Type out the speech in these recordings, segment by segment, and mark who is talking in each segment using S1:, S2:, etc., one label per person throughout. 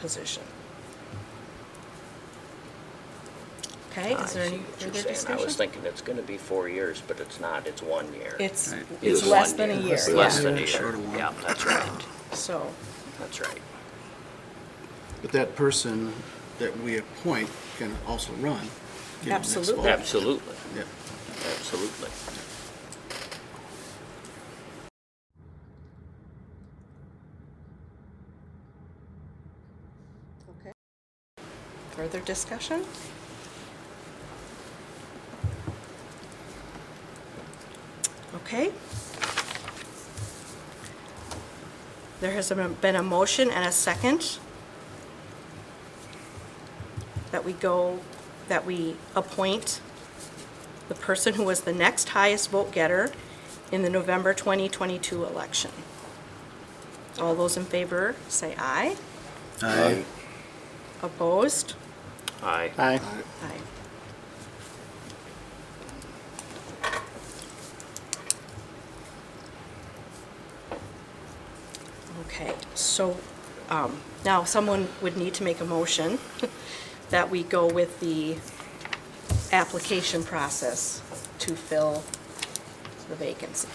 S1: position. Okay, is there
S2: I
S1: any
S2: see what
S1: further
S2: you're Ah, saying. I was
S1: discussion?
S2: thinking it's gonna be four years, but it's not, it's one year.
S1: It's,
S3: Right.
S1: it's
S2: It's
S1: less
S2: one
S1: than a year,
S2: It's Less
S1: yeah,
S2: than a year,
S3: Short of one.
S2: yeah, that's right,
S1: so,
S2: that's right.
S3: But that person that we appoint can also run. you know, next
S1: Absolutely.
S3: fall.
S2: Absolutely,
S3: Yeah.
S2: absolutely.
S1: further discussion? Okay. There has been a motion and a second that we go, that we appoint the person who was the next highest vote getter in the November 2022 election. All those in favor, say aye.
S3: Aye.
S1: Opposed?
S2: Aye.
S3: Aye.
S1: Aye. Okay, so um, now someone would need to make a motion that we go with the application process to fill the vacancy.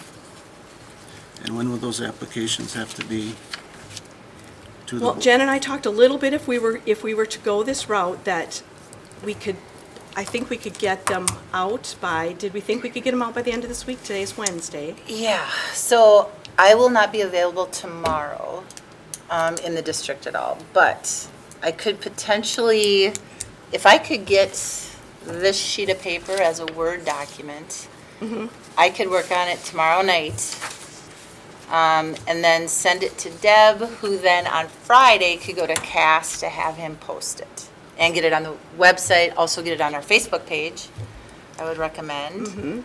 S3: And when will those applications have to be to the?
S1: Well,
S3: bo-
S1: Jen and I talked a little bit if we were, if we were to go this route, that we could, I think we could get them out by, did we think we could get them out by the end of this week? Today's Wednesday.
S4: Yeah, so I will not be available tomorrow um, in the district at all, but I could potentially, if I could get this sheet of paper as a Word document, I could work on it tomorrow night, um, and then send it to Deb, who then on Friday could go to Cass to have him post it, and get it on the website, also get it on our Facebook page, I would recommend.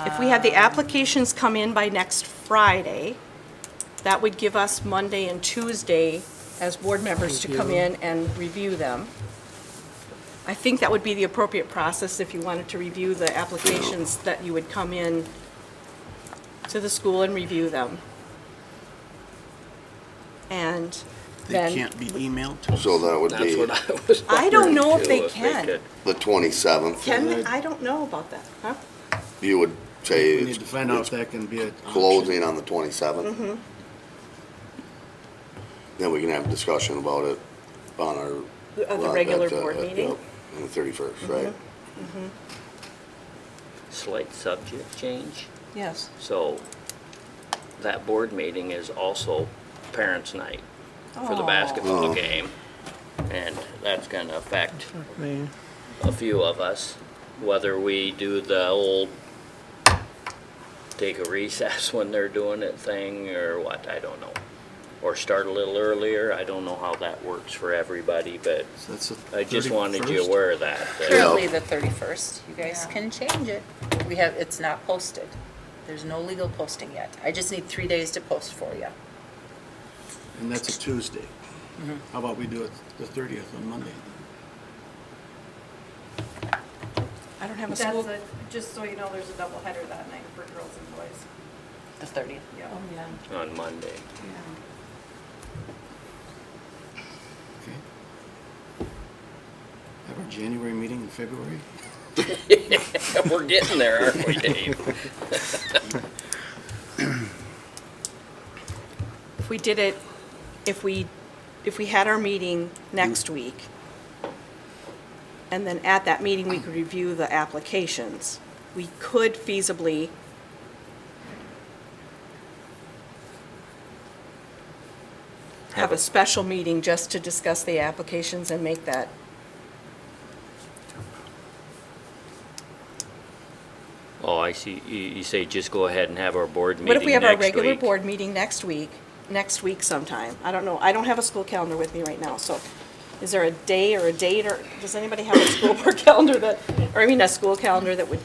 S1: If we had the applications come in by next Friday, that would give us Monday and Tuesday as board members to come in and review them. I think that would be the appropriate process if you wanted to review the applications, that you would come in to the school and review them. And
S3: They
S1: then,
S3: can't be emailed to us?
S5: So that would
S2: That's
S5: be
S2: what I was
S1: I don't
S2: wondering,
S1: know if
S2: too,
S1: they can.
S2: could.
S5: the twenty-seventh.
S1: Ken, I don't know about that, huh?
S5: You would say
S3: We need to
S5: it's
S3: find out if that can be a.
S5: closing on the
S1: Mm-hmm.
S5: twenty-seventh? Then we can have a discussion about it on our.
S1: the
S5: well,
S1: regular
S5: at, uh,
S1: board
S5: at,
S1: meeting? Mm-hmm.
S5: yep, On the thirty-first, right?
S2: Slight subject change,
S1: Yes.
S2: so that board meeting is also parents' night for the basketball
S5: Oh.
S2: game. And that's gonna affect a few of us, whether we do the old take a recess when they're doing it thing or what, I don't know. Or start a little earlier, I don't know how that works for everybody, but
S3: So that's the
S2: I just wanted you
S3: 31st?
S2: aware of that. that-
S4: Currently, the 31st. You guys can change it. We have, it's not posted. There's no legal posting yet. I just need three days to post for you.
S3: And that's a Tuesday.
S1: Mm-hmm.
S3: How about we do it the thirtieth on Monday?
S1: I don't have a
S6: That's
S1: school.
S6: a, just so you know, there's a double header that night for girls and boys.
S4: The 30th.
S6: Yeah.
S2: on Monday.
S3: Okay. Have our January meeting in February?
S2: We're getting there, aren't we, Dave?
S1: If we did it, if we, if we had our meeting next week, and then at that meeting, we could review the applications, we could feasibly have a special meeting just to discuss the applications and make that.
S2: Oh, I see. You, you say just go ahead and have our board meeting
S1: What if we have our
S2: next
S1: regular
S2: week?
S1: board meeting next week, next week sometime? I don't know, I don't have a school calendar with me right now, so is there a day or a date, or does anybody have a school board calendar that, or I mean, a school calendar that would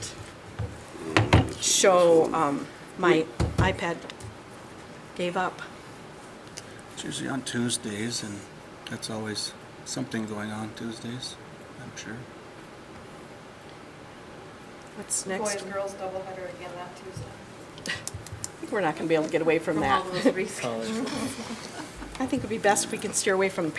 S1: show, um, my iPad gave up?
S3: It's usually on Tuesdays and that's always something going on Tuesdays, I'm sure.
S1: What's
S6: Boy
S1: next?
S6: and girls double header again that Tuesday.
S1: I think we're not gonna be able to get away from that.
S6: From all those reasons.
S1: I think it'd be best if we can steer away from